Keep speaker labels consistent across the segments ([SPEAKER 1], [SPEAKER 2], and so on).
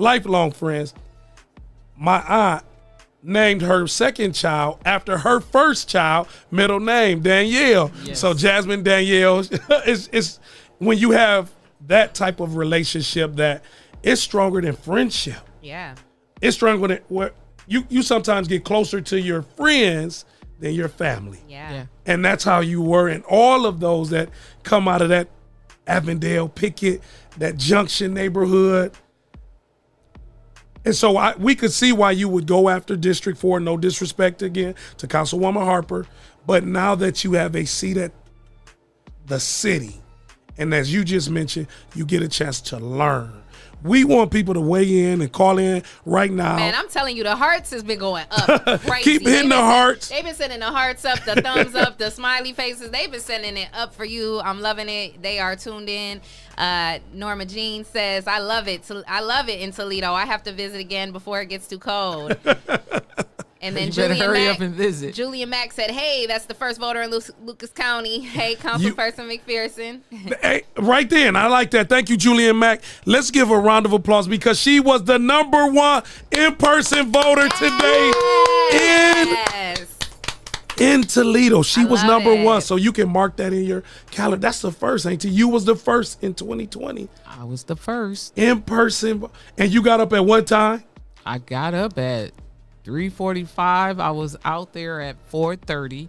[SPEAKER 1] lifelong friends. My aunt named her second child after her first child, middle name Danielle.
[SPEAKER 2] Yes.
[SPEAKER 1] So Jasmine Danielle is is when you have that type of relationship that it's stronger than friendship.
[SPEAKER 3] Yeah.
[SPEAKER 1] It's stronger than what you you sometimes get closer to your friends than your family.
[SPEAKER 3] Yeah.
[SPEAKER 2] Yeah.
[SPEAKER 1] And that's how you were and all of those that come out of that Avondale, Pickett, that Junction neighborhood. And so I, we could see why you would go after District 4, no disrespect again to Councilwoman Harper. But now that you have a seat at the city, and as you just mentioned, you get a chance to learn. We want people to weigh in and call in right now.
[SPEAKER 3] Man, I'm telling you, the hearts has been going up. Crazy.
[SPEAKER 1] Keep
[SPEAKER 3] They
[SPEAKER 1] hitting the
[SPEAKER 3] been-
[SPEAKER 1] hearts.
[SPEAKER 3] They've been sending the hearts up, the thumbs up, the smiley faces. They've been sending it up for you. I'm loving it. They are tuned in. Uh, Norma Jean says, "I love it. Tol- I love it in Toledo. I have to visit again before it gets too cold." And then
[SPEAKER 2] You better
[SPEAKER 3] Julian
[SPEAKER 2] hurry
[SPEAKER 3] Mack,
[SPEAKER 2] up and visit.
[SPEAKER 3] Julian Mack said, "Hey, that's the first voter in Lu- Lucas County. Hey, Councilperson McPherson.
[SPEAKER 1] Hey, right then. I like that. Thank you, Julian Mack. Let's give her a round of applause because she was the number one in person voter today
[SPEAKER 3] Yes.
[SPEAKER 1] in Toledo. She
[SPEAKER 3] I
[SPEAKER 1] was
[SPEAKER 3] love
[SPEAKER 1] number
[SPEAKER 3] it.
[SPEAKER 1] one. So you can mark that in your calendar. That's the first, ain't you? You was the first in 2020
[SPEAKER 2] I was the first.
[SPEAKER 1] in person. vo- And you got up at what time?
[SPEAKER 2] I got up at 3:45. I was out there at 4:30.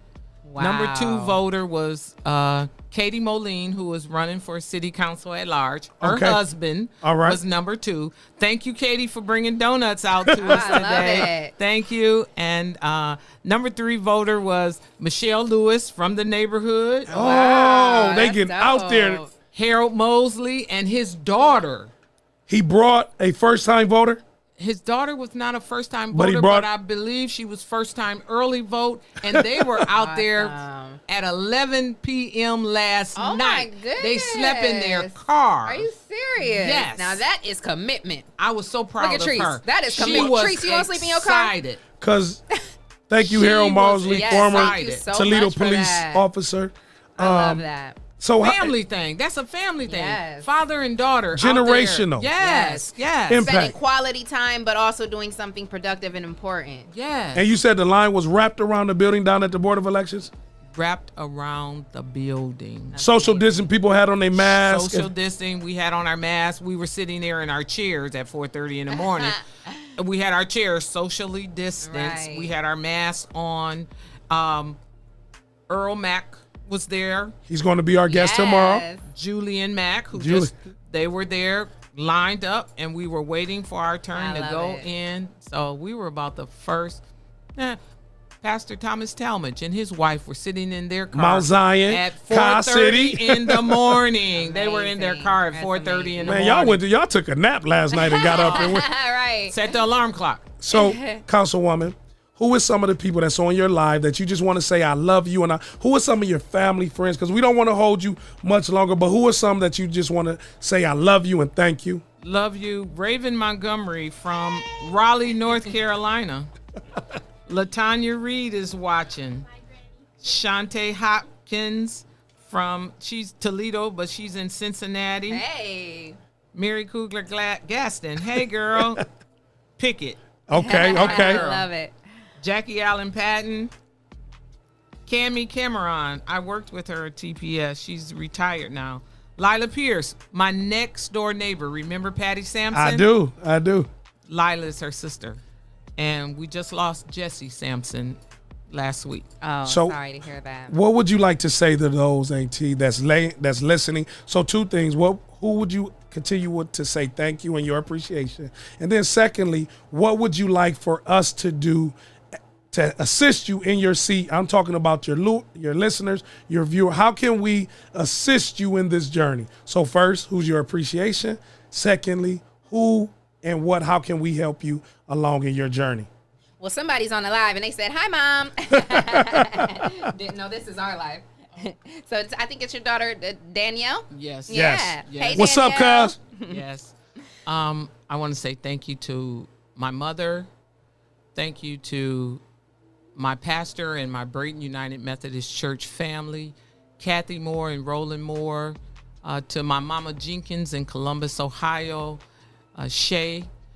[SPEAKER 2] Number two
[SPEAKER 3] Wow.
[SPEAKER 2] voter was uh, Katie Moline, who was running for city council at large. Her
[SPEAKER 1] Okay.
[SPEAKER 2] husband
[SPEAKER 1] All right.
[SPEAKER 2] was number two. Thank you, Katie, for bringing donuts out to us
[SPEAKER 3] love
[SPEAKER 2] today.
[SPEAKER 3] it.
[SPEAKER 2] Thank you. And uh, number three voter was Michelle Lewis from the neighborhood.
[SPEAKER 1] Oh, they
[SPEAKER 3] that's
[SPEAKER 1] getting out there.
[SPEAKER 3] dope.
[SPEAKER 2] Harold Mosley and his daughter.
[SPEAKER 1] He brought a first time voter.
[SPEAKER 2] his daughter was not a first time
[SPEAKER 1] But he
[SPEAKER 2] voter, but,
[SPEAKER 1] brought-
[SPEAKER 2] I believe she was first time early vote, and they were out there
[SPEAKER 3] Awesome.
[SPEAKER 2] at 11 p.m. last
[SPEAKER 3] Oh my
[SPEAKER 2] night. They slept in their
[SPEAKER 3] goodness.
[SPEAKER 2] car.
[SPEAKER 3] Are you serious?
[SPEAKER 2] Yes.
[SPEAKER 3] Now that is commitment.
[SPEAKER 2] I was so proud
[SPEAKER 3] Look at
[SPEAKER 2] of
[SPEAKER 3] Treece.
[SPEAKER 2] her.
[SPEAKER 3] That is
[SPEAKER 2] she
[SPEAKER 3] commitment.
[SPEAKER 2] was
[SPEAKER 3] Treece, you wanna sleep in your car?
[SPEAKER 2] excited.
[SPEAKER 1] Because thank you,
[SPEAKER 2] She
[SPEAKER 1] Harold
[SPEAKER 2] was
[SPEAKER 1] Mosley,
[SPEAKER 2] excited.
[SPEAKER 1] former
[SPEAKER 3] thank you so
[SPEAKER 1] Toledo
[SPEAKER 3] much for
[SPEAKER 1] police
[SPEAKER 3] that.
[SPEAKER 1] officer.
[SPEAKER 3] I love that.
[SPEAKER 1] So how-
[SPEAKER 2] Family thing. That's a family thing.
[SPEAKER 3] Yes.
[SPEAKER 2] Father and daughter. out there.
[SPEAKER 1] Generational.
[SPEAKER 2] Yes. Yes.
[SPEAKER 1] Imp-
[SPEAKER 3] Spending
[SPEAKER 1] impact.
[SPEAKER 3] quality time, but also doing something productive and important.
[SPEAKER 2] yes.
[SPEAKER 1] And you said the line was wrapped around the building down at the Board of Elections?
[SPEAKER 2] Wrapped around the building.
[SPEAKER 1] Social distancing, people had on their masks.
[SPEAKER 2] social distancing. We had on our masks. We were sitting there in our chairs at 4:30 in the morning. And we had our chairs socially distanced.
[SPEAKER 3] Right.
[SPEAKER 2] We had our masks on. Um, Earl Mack was there.
[SPEAKER 1] He's going to be our guest tomorrow.
[SPEAKER 3] Yes.
[SPEAKER 2] Julian Mack, who
[SPEAKER 1] Julie.
[SPEAKER 2] just they were there lined up, and we were waiting for our turn
[SPEAKER 3] I
[SPEAKER 2] to
[SPEAKER 3] love
[SPEAKER 2] go
[SPEAKER 3] it.
[SPEAKER 2] in. So we were about the first. eh, Pastor Thomas Talmadge and his wife were sitting in their car
[SPEAKER 1] Mount Zion,
[SPEAKER 2] at
[SPEAKER 1] Car
[SPEAKER 2] 4:30
[SPEAKER 1] City.
[SPEAKER 2] in the morning. they were in their
[SPEAKER 3] Amazing.
[SPEAKER 2] car at
[SPEAKER 3] That's
[SPEAKER 2] 4:30 in the
[SPEAKER 1] Man,
[SPEAKER 2] morning.
[SPEAKER 1] y'all went to, y'all took a nap last night and got up and went.
[SPEAKER 3] All right.
[SPEAKER 2] set the alarm clock.
[SPEAKER 1] So, Councilwoman, who is some of the people that's on your live that you just want to say I love you and I, who are some of your family friends? Because we don't want to hold you much longer, but who are some that you just want to say I love you and thank you?
[SPEAKER 2] Love you, Raven Montgomery from Raleigh, North Carolina. Latanya Reed is watching. Shante Hopkins from she's Toledo, but she's in Cincinnati.
[SPEAKER 3] Hey.
[SPEAKER 2] Mary Kugler Gla- Gaston, hey girl, Pickett,
[SPEAKER 1] Okay,
[SPEAKER 3] I
[SPEAKER 1] okay.
[SPEAKER 3] love it.
[SPEAKER 2] Jackie Allen Patton, Cami Cameron. I worked with her at TPS. She's retired now. Lila Pierce, my next door neighbor. Remember Patty Sampson?
[SPEAKER 1] I do, I do.
[SPEAKER 2] Lila is her sister, and we just lost Jesse Sampson last week. Uh,
[SPEAKER 3] Oh,
[SPEAKER 1] So-
[SPEAKER 3] sorry to hear that.
[SPEAKER 1] What would you like to say to those AT that's lay, that's listening? So two things. What who would you continue with to say thank you and your appreciation? And then secondly, what would you like for us to do to assist you in your seat? I'm talking about your lo- your listeners, your viewer. How can we assist you in this journey? So first, who's your appreciation? Secondly, who and what how can we help you along in your journey?
[SPEAKER 3] Well, somebody's on the live and they said, Hi, mom. Didn't know this is our live. so it's, I think it's your daughter, uh, Danielle.
[SPEAKER 2] Yes.
[SPEAKER 3] Yeah.
[SPEAKER 1] Yes.
[SPEAKER 2] Yes.
[SPEAKER 3] Hey,
[SPEAKER 1] What's up,
[SPEAKER 3] Danielle.
[SPEAKER 1] cuz?
[SPEAKER 2] yes. Um, I want to say thank you to my mother. Thank you to my pastor and my Brayton United Methodist Church family, Kathy Moore and Roland Moore, uh, to my mama Jenkins in Columbus, Ohio, uh, Shay